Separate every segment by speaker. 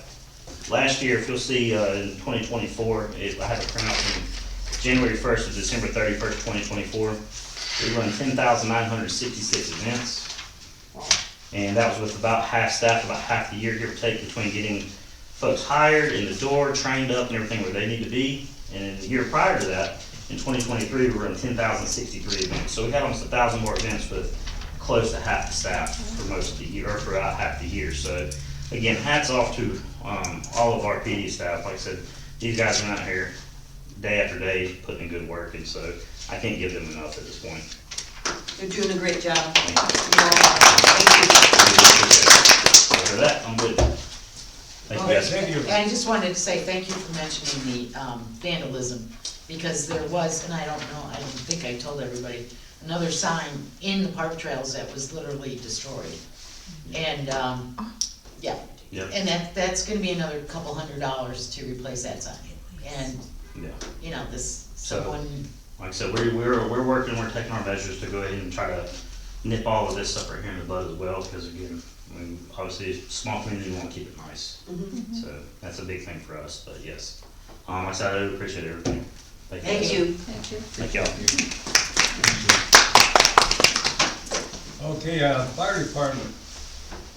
Speaker 1: staff. Last year, if you'll see, uh, in twenty twenty-four, it, I have it printed out from January first to December thirty-first, twenty twenty-four. We run ten thousand nine hundred sixty-six events. And that was with about half staff, about half the year, give or take, between getting folks hired in the door, trained up and everything where they need to be. And the year prior to that, in twenty twenty-three, we were in ten thousand sixty-three events. So we had almost a thousand more events with close to half the staff for most of the year, or for about half the year. So again, hats off to, um, all of our PD staff. Like I said, these guys are out here day after day putting in good work and so I can't give them enough at this point.
Speaker 2: You're doing a great job.
Speaker 1: Thank
Speaker 2: You are.
Speaker 1: After that, I'm good. Thank you guys.
Speaker 3: Thank you.
Speaker 4: And I just wanted to say thank you for mentioning the um, vandalism, because there was, and I don't know, I don't think I told everybody, another sign in the park trails that was literally destroyed. And, um, yeah,
Speaker 1: Yeah,
Speaker 4: and that, that's gonna be another couple hundred dollars to replace that sign. And,
Speaker 1: yeah.
Speaker 4: you know, this,
Speaker 1: So-
Speaker 4: someone,
Speaker 1: Like I said, we're, we're, we're working, we're taking our measures to go ahead and try to nip all of this stuff right here in the bud as well, because again, I mean, obviously, it's a small community, we wanna keep it nice.
Speaker 2: Mm-hmm.
Speaker 1: So that's a big thing for us, but yes. Um, like I said, I do appreciate everything.
Speaker 2: Thank you.
Speaker 5: Thank you.
Speaker 1: Thank y'all.
Speaker 3: Okay, uh, fire department.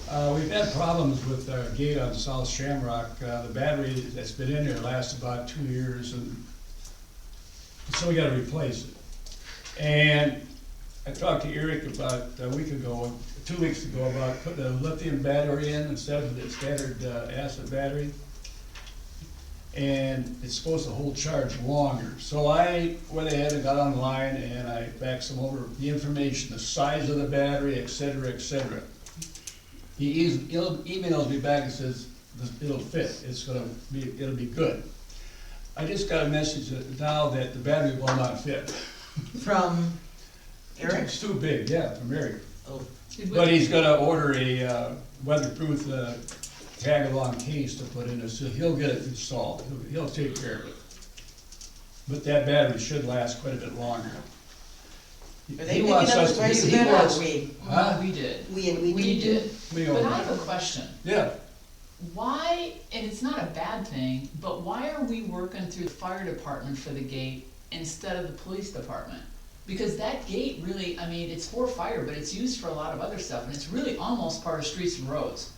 Speaker 3: Uh, we've had problems with our gate on South Shamrock. Uh, the battery that's been in there lasts about two years and so we gotta replace it. And I talked to Eric about a week ago, two weeks ago, about putting a lithium battery in instead of the standard uh, acid battery. and it's supposed to hold charge longer. So I went ahead and got online and I faxed him over the information, the size of the battery, et cetera, et cetera. He eas- he'll- emails me back and says, "This- it'll fit, it's gonna be, it'll be good. I just got a message that- now that the battery will not fit.
Speaker 4: from Eric,
Speaker 3: It's too big, yeah, for Eric.
Speaker 4: oh,
Speaker 3: But he's gonna order a uh, weatherproof uh, tag-along case to put in it, so he'll get it installed, He'll- he'll take care of it. But that battery should last quite a bit longer.
Speaker 4: are they
Speaker 3: He
Speaker 4: picking up
Speaker 3: wants us
Speaker 4: the
Speaker 3: to-
Speaker 4: price of
Speaker 3: he
Speaker 4: that, or
Speaker 3: wants-
Speaker 4: are we?
Speaker 3: Huh?
Speaker 6: We did.
Speaker 2: We and we.
Speaker 6: We did.
Speaker 3: We
Speaker 6: But
Speaker 3: own
Speaker 6: I
Speaker 3: it.
Speaker 6: have a question.
Speaker 3: Yeah,
Speaker 6: Why, and it's not a bad thing, but why are we working through the fire department for the gate instead of the police department? Because that gate really, I mean, it's for fire, but it's used for a lot of other stuff, and it's really almost part of streets and roads,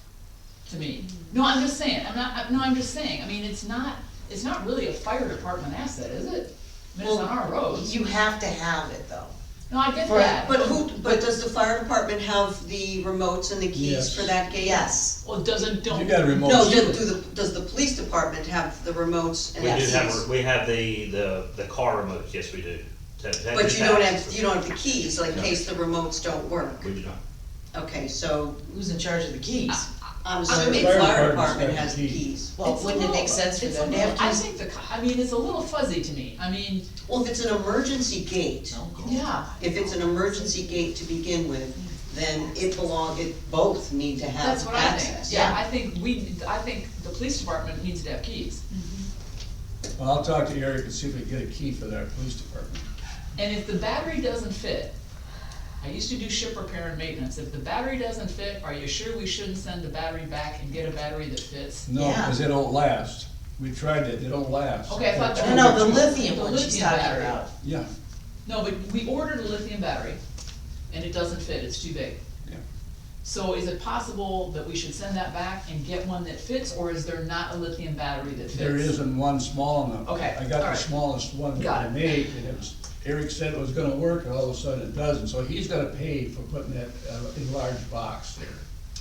Speaker 6: to me. No, I'm just saying, I'm not, I'm- no, I'm just saying, I mean, it's not, it's not really a fire department asset, is it? I mean, it's on our roads.
Speaker 4: You have to have it, though.
Speaker 6: No, I get
Speaker 4: for-
Speaker 6: that.
Speaker 2: But who, but does the fire department have the remotes and the keys
Speaker 3: Yes.
Speaker 2: for that gate?
Speaker 4: Yes.
Speaker 6: Well, it doesn't, don't.
Speaker 3: you got a remote.
Speaker 2: No, do, do the, does the police department have the remotes and
Speaker 1: We
Speaker 2: the
Speaker 1: do
Speaker 2: keys?
Speaker 1: have, we have the, the, the car remote, yes, we do. That- that
Speaker 2: But
Speaker 1: is
Speaker 2: you don't
Speaker 1: access.
Speaker 2: have, you don't have the keys, like in
Speaker 1: No.
Speaker 2: case the remotes don't work.
Speaker 1: We do not.
Speaker 2: Okay, so
Speaker 4: Who's in charge of the keys?
Speaker 2: I'm
Speaker 3: the
Speaker 2: assuming
Speaker 3: fire
Speaker 2: fire
Speaker 3: department's
Speaker 2: department
Speaker 3: got
Speaker 2: has
Speaker 3: the
Speaker 2: the
Speaker 3: keys.
Speaker 2: keys.
Speaker 4: Well,
Speaker 6: It's
Speaker 4: wouldn't it
Speaker 6: little-
Speaker 4: make sense for
Speaker 6: it's a
Speaker 4: them to have
Speaker 6: little- I
Speaker 4: keys?
Speaker 6: think the, co- I mean, it's a little fuzzy to me, I mean,
Speaker 2: Well, if it's an emergency gate,
Speaker 6: yeah.
Speaker 2: if it's an emergency gate to begin with, then it belong, it both need to have
Speaker 6: That's what I
Speaker 2: access.
Speaker 6: think, yeah, I think we, I think the police department needs to have keys.
Speaker 3: Well, I'll talk to Eric and see if we can get a key for that police department.
Speaker 6: And if the battery doesn't fit, I used to do ship repair and maintenance, if the battery doesn't fit, are you sure we shouldn't send the battery back and get a battery that fits?
Speaker 3: No,
Speaker 4: Yeah.
Speaker 3: because they don't last. We tried it, they don't last.
Speaker 6: Okay, I thought
Speaker 4: No,
Speaker 6: that-
Speaker 4: no, the lithium
Speaker 6: The
Speaker 4: one she's
Speaker 6: lithium
Speaker 4: talking
Speaker 6: battery.
Speaker 4: about.
Speaker 3: Yeah,
Speaker 6: No, but we ordered a lithium battery, and it doesn't fit, it's too big.
Speaker 3: yeah.
Speaker 6: So is it possible that we should send that back and get one that fits, or is there not a lithium battery that fits?
Speaker 3: There isn't one small enough.
Speaker 6: Okay,
Speaker 3: I got the
Speaker 6: alright.
Speaker 3: smallest one
Speaker 6: Got
Speaker 3: that I
Speaker 6: it.
Speaker 3: made, and it was, Eric said it was gonna work, and all of a sudden it doesn't, so he's gonna pay for putting that, uh, enlarged box there.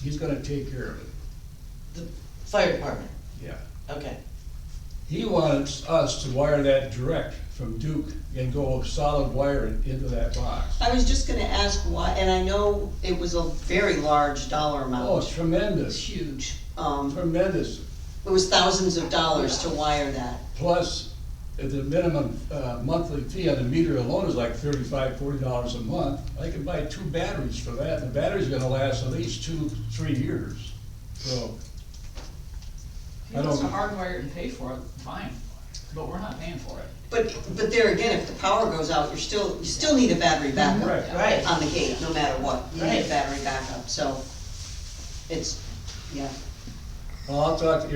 Speaker 3: He's gonna take care of it,
Speaker 4: The fire department,
Speaker 3: yeah.
Speaker 4: okay.
Speaker 3: He wants us to wire that direct from Duke and go solid wire it into that box.
Speaker 2: I was just gonna ask why, and I know it was a very large dollar
Speaker 3: Oh, it's
Speaker 2: amount.
Speaker 6: It's
Speaker 3: tremendous,
Speaker 6: huge.
Speaker 2: Um,
Speaker 3: tremendous.
Speaker 2: it was thousands of dollars to wire that.
Speaker 3: Plus, uh, the minimum, uh, monthly fee on the meter alone is like thirty-five, forty dollars a month. I can buy two batteries for that, and the battery's gonna last at least two, three years, so.
Speaker 6: If
Speaker 3: I
Speaker 6: he wants to
Speaker 3: don't-
Speaker 6: hardwire it and pay for it, fine, but we're not paying for it.
Speaker 2: But, but there again, if the power goes out, you're still, you still need a battery backup.
Speaker 3: Right.
Speaker 4: Right.
Speaker 2: On the gate, no matter what, you need a
Speaker 4: Right.
Speaker 2: battery backup, so it's, yeah.
Speaker 3: Well, I'll talk to